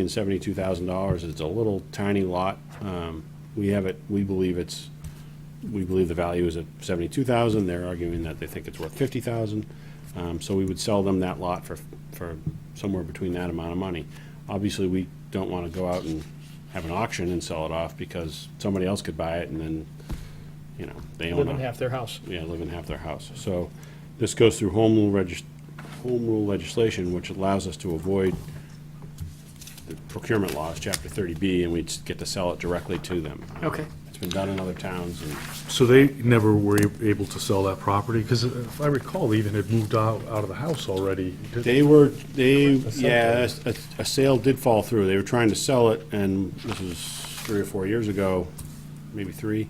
and seventy-two thousand dollars. It's a little tiny lot. Um, we have it, we believe it's, we believe the value is at seventy-two thousand. They're arguing that they think it's worth fifty thousand. Um, so we would sell them that lot for, for somewhere between that amount of money. Obviously, we don't want to go out and have an auction and sell it off because somebody else could buy it and then, you know, they own it live in half their house. yeah, live in half their house. So this goes through home rule regis, home rule legislation, which allows us to avoid the procurement laws, chapter thirty B, and we just get to sell it directly to them. Okay. It's been done in other towns and So they never were a- able to sell that property? Because if I recall, they even had moved out, out of the house already. they were, they, yeah, a, a sale did fall through. They were trying to sell it and this was three or four years ago, maybe three.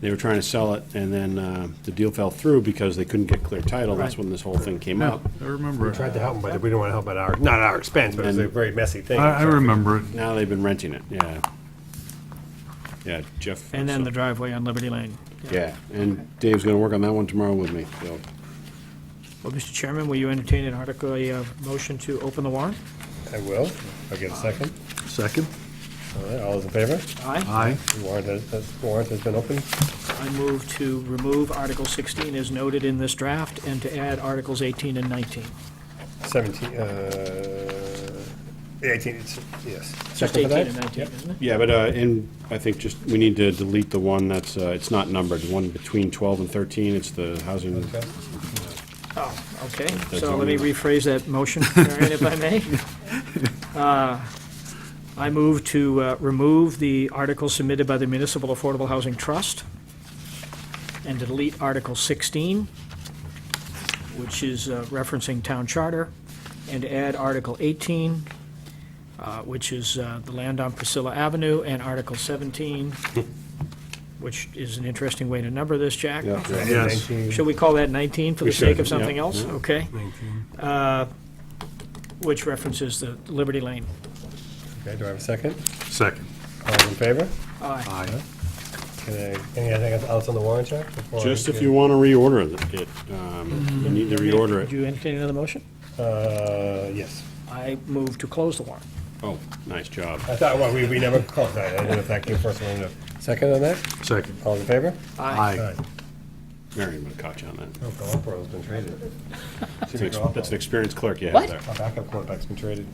They were trying to sell it and then, uh, the deal fell through because they couldn't get clear title. That's Right. when this whole thing came Yeah, up. I remember. it. Tried to help them, but we didn't want to help at our, not at our expense, but it was a very messy thing. I, I remember it. Now they've been renting it, yeah. Yeah, Jeff. And then so- the driveway on Liberty Lane. Yeah, and Dave's gonna work on that one tomorrow with me, so. Well, Mr. Chairman, will you entertain an article, a uh, motion to open the warrant? I will. I'll get a second. Second? All right, all those in favor? Aye. Aye. The Warrant has, the warrant has been opened. I move to remove Article 16 as noted in this draft and to add Articles 18 and 19. Seventeen, uh, eighteen, it's, yes. Just Second 18 for that? and 19, isn't it? Yeah, but, uh, and I think just, we need to delete the one that's, uh, it's not numbered, the one between twelve and thirteen, it's the housing. Okay. Oh, okay. That's So all let me we- rephrase that motion, Marion, if I may. Uh, I move to uh, remove the article submitted by the Municipal Affordable Housing Trust and to delete Article 16, which is uh, referencing town charter, and to add Article 18, uh, which is uh, the land on Priscilla Avenue, and Article 17, which is an interesting way to number this, Jack. Yeah, yeah. Yes. Nineteen. Shall we call that 19 for We the sake should, of something yeah, else? yeah. Okay. Uh, Which references the Liberty Lane. Okay, do I have a second? Second. All those in favor? Aye. Aye. Can I, anything else on the warrant, Jack? before I- Just if you wanna reorder it- it, um, you need to reorder Do it. you entertain another motion? Uh, yes. I move to close the warrant. Oh, nice job. I thought, well, we, we never called that. I didn't know if that came first or not. Second on that? Second. All in favor? Aye. Marion would have caught you on that. Oh, Garoppolo's been traded. That's an Jimmy ex- That's an Garoppolo. experienced clerk you What? have there. Our backup quarterback's been traded.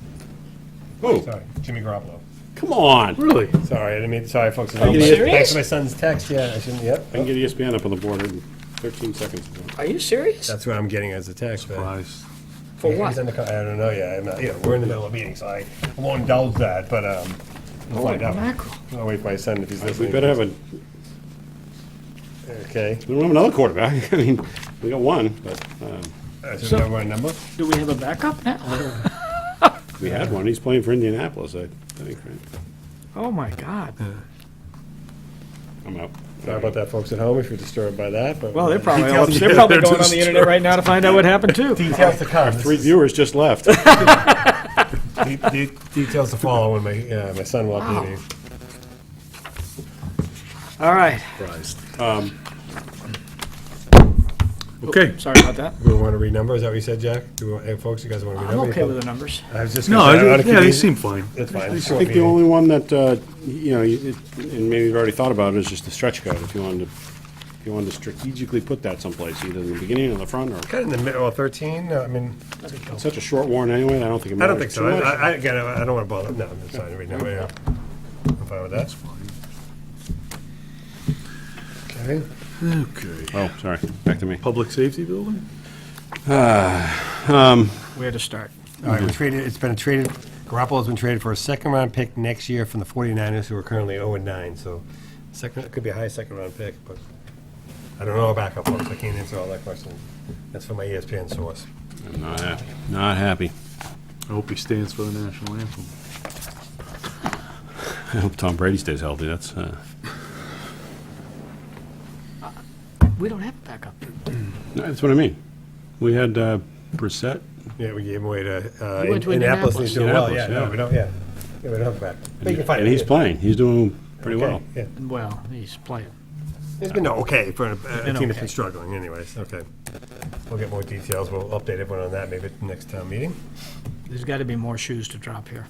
Oh, Sorry, Jimmy Garoppolo. come on. Really? Sorry, I didn't mean, sorry, folks. Are you serious? Thanks for my son's text, yeah, I shouldn't, yep. I can get E ESPN up on the board in thirteen seconds. Are you serious? That's what I'm getting as a text. but- Surprise. For He's what? in the co- I don't know, yeah, I'm not, yeah, we're in the middle of a meeting, so I I won't indulge that, but, um, we'll find out. Mackerel. I'll wait for my son if he's We listening. better have a, Okay. we don't have another quarterback. I mean, we got one, but, um, Uh, So we have our number? Do we have a backup Oh, now? we had one. He's playing for Indianapolis, I think, right? Oh, my God. Uh, I'm out. Sorry about that, folks at home, if you're disturbed by that, but. Well, they're probably, all- Details- they're yeah, probably they're going on the disturbed. internet right now to find out what happened, too. Details to come. Three viewers just left. De- de- Details to follow when my, uh, my son walks in. here. All right. Okay. Sorry about that. Do we want to read numbers? Is that what you said, Jack? Do we, hey, folks, you guys want to read I'm numbers? okay with the numbers. I was just. No, gonna say, I I oughta think- yeah, keep they these- seem fine. That's fine. it's a I short think the meeting. only one that, uh, you know, you- it- and maybe you've already thought about it, is just the stretch code. If you wanted to, if you wanted to strategically put that someplace, either in the beginning or the front, or, Kind of in the middle, well, thirteen, uh, I mean, it's such a short warrant anyway, I don't think it I don't matters think too so. I, much. I, I- again, I I don't want to bother, no, I'm sorry, read number, yeah. I'm fine with that. Okay. Okay. Oh, sorry, back to me. Uh, Public safety building? Where to start? All Mm-hmm. right, we traded, it's been traded, Garoppolo's been traded for a second round pick next year from the 49ers, who are currently 0 and 9, so second, it could be a high second round pick, but I don't know about backup folks, I can't answer all that question. That's from my E ESPN source. I'm not happy, not happy. I hope he stands for the national anthem. I hope Tom Brady stays healthy, that's, uh, We don't have a backup. no, that's what I mean. We had, uh, Brissett, Yeah, we gave him away to uh, He went to Indianapolis, and he's doing well, yeah, Indianapolis, no, yeah. we don't, yeah. Yeah, we don't have a backup. But you can find and it, he's yeah. playing, he's doing pretty Okay, well. Yeah, Well, he's playing. it's been okay for a- a Been team that's okay. been struggling anyways, okay. We'll get more details, we'll update everyone on that maybe at the next town meeting. There's got to be more shoes to drop here.